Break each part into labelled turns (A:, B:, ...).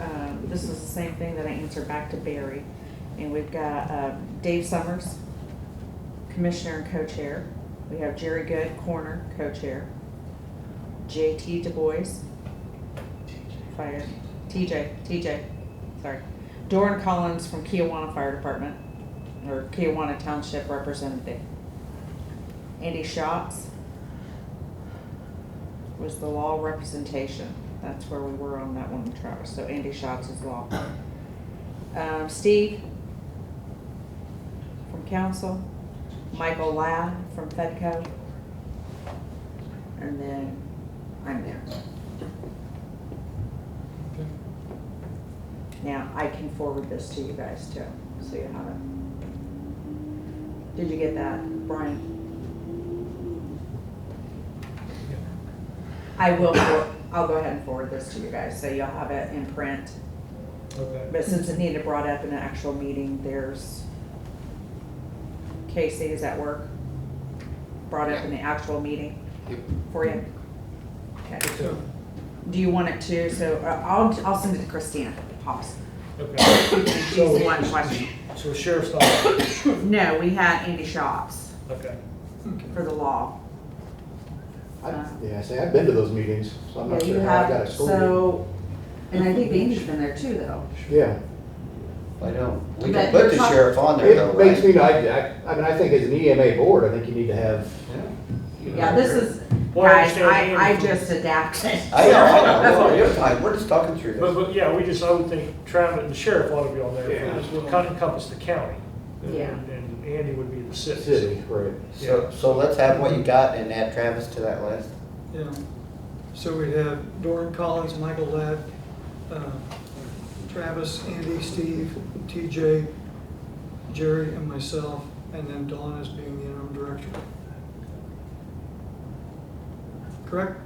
A: um, This is the same thing that I answered back to Barry. And we've got uh, Dave Summers, Commissioner and Co-Chair. We have Jerry Good, Corner, Co-Chair. JT Du Bois, Fire, TJ, TJ, sorry. Doran Collins from Kiwanis Fire Department, or Kiwanis Township Representative. Andy Schatz was the law representation. That's where we were on that one, Travis. So Andy Schatz is law. Um, Steve from council, Michael Ladd from FedCo, and then I'm there. Now, I can forward this to you guys too, so you have it. Did you get that, Brian? I will, for- I'll go ahead and forward this to you guys, so you'll have it in print.
B: Okay.
A: But since Anita brought up in an actual meeting, there's, Casey is at work, brought up in the actual meeting
C: Yep.
A: for you. Okay.
B: So,
A: Do you want it to, so uh, I'll, I'll send it to Christina, Hobbs.
B: okay.
A: She's
B: So-
A: the one question.
B: So sheriff's office,
A: No, we had Andy Shops
B: okay.
A: for the law.
D: I- Yeah, I say, I've been to those meetings, so I'm not
A: Yeah, you
D: sure how I
A: have-
D: got excluded.
A: So, and I think Andy's been there too, though.
D: Yeah,
C: I know. We
A: But
C: can put the
A: you're talk-
C: sheriff on there though,
D: it makes
C: right?
D: me, I, I, I mean, I think as an EMA board, I think you need to have,
C: Yeah.
A: Yeah, this is,
B: Well, I
A: guys, I,
B: understand
A: I
B: Andy from-
A: just adapted.
C: I know, I
B: That's
C: know,
B: all.
C: no, you're fine, we're just talking through
B: But,
C: this.
B: but, yeah, we just, I would think Travis and the sheriff ought to be on there,
D: Yeah.
B: because we'll kind of encompass the county. And-
A: Yeah.
B: And Andy would be the city.
D: city, right?
C: So, so let's have what you got and add Travis to that list.
E: Yeah, so we have Doran Collins, Michael Ladd, uh, Travis, Andy, Steve, TJ, Jerry, and myself, and then Dawn as being the interim director. Correct?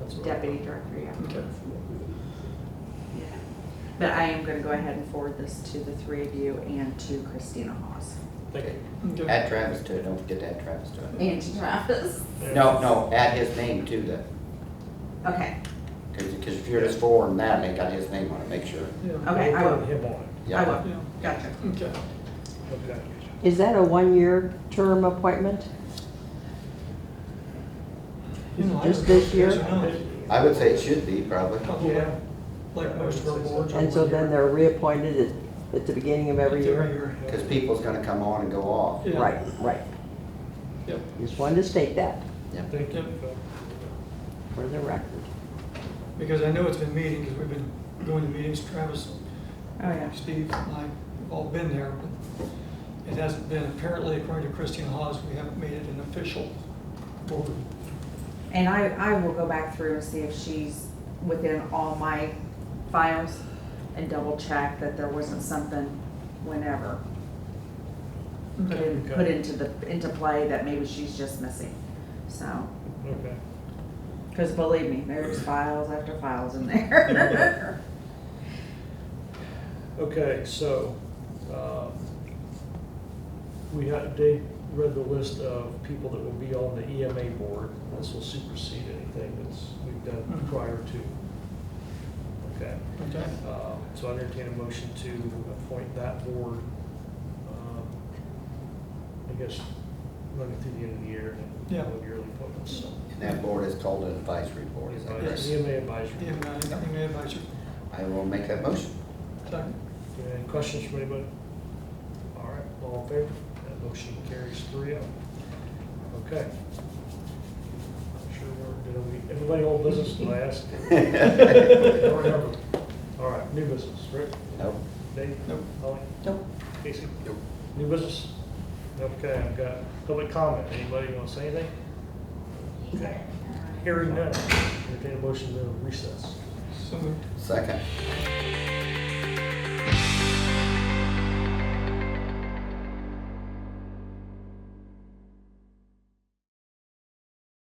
B: That's what I-
A: Deputy Director, yeah.
E: Okay.
A: Yeah. But I am gonna go ahead and forward this to the three of you and to Christina Hawes.
B: Thank you.
E: Okay.
C: Add Travis to it, don't forget to add Travis to it.
A: And to Travis.
B: Yeah.
C: No, no, add his name to the,
A: Okay,
C: cause, 'cause if you're just forwarding that, they got his name on it, make sure.
E: Yeah,
A: okay, I
B: We'll
A: will,
B: put Him on
A: I
C: Yeah.
A: will,
E: yeah,
A: gotcha.
E: okay.
B: it, okay.
F: Is that a one-year term appointment?
E: You know, I
F: Just this year?
E: guess not.
C: I would say it should be probably.
B: Yeah.
E: Like most of our boards. are
F: And so
E: one
F: then
E: year.
F: they're reappointed at, at the beginning of every
E: Every
F: year?
E: year. yeah.
C: Cause people's gonna come on and go off.
E: Yeah.
F: Right, right.
E: Yep.
F: Just wanted to state that
B: Thank you.
F: for the record.
E: Because I know it's been meeting, because we've been going to meetings, Travis
A: Oh, yeah.
E: Steve and I have all been there, but it hasn't been, apparently according to Christine Hawes, we haven't made it an official board.
A: And I, I will go back through and see if she's within all my files and double check that there wasn't something whenever put in- put
B: Okay.
A: into the, into play that maybe she's just missing, so.
B: Okay.
A: Because believe me, there's files after files in there.
B: Okay, so, um, we had, Dave read the list of people that will be on the EMA board. This will supersede anything that's, we've done prior to. Okay,
E: Okay.
B: um, so I entertain a motion to appoint that board. um, I guess, running through the end of the year and
E: Yeah.
B: then yearly appointments, so.
C: And that board is called an advisory board, is that
B: Advisory-
C: correct?
B: EMA advisory.
E: Yeah, I think I advise you.
C: I will make that motion.
E: Second.
B: Do you have Any questions from anybody? All right, all in favor? That motion carries three oh. Okay. I'm Sure, we're, did we, anybody old business, did I ask? I don't remember. All right, new business, Rick,
C: Nope.
B: Dave?
E: Nope.
B: Holly?
F: Nope.
B: Casey?
C: Nope.
B: New business? Okay, I've got public comment. Anybody want to say anything? Okay. Hearing none. Entertain a motion to recess.
E: So moved.
C: Second.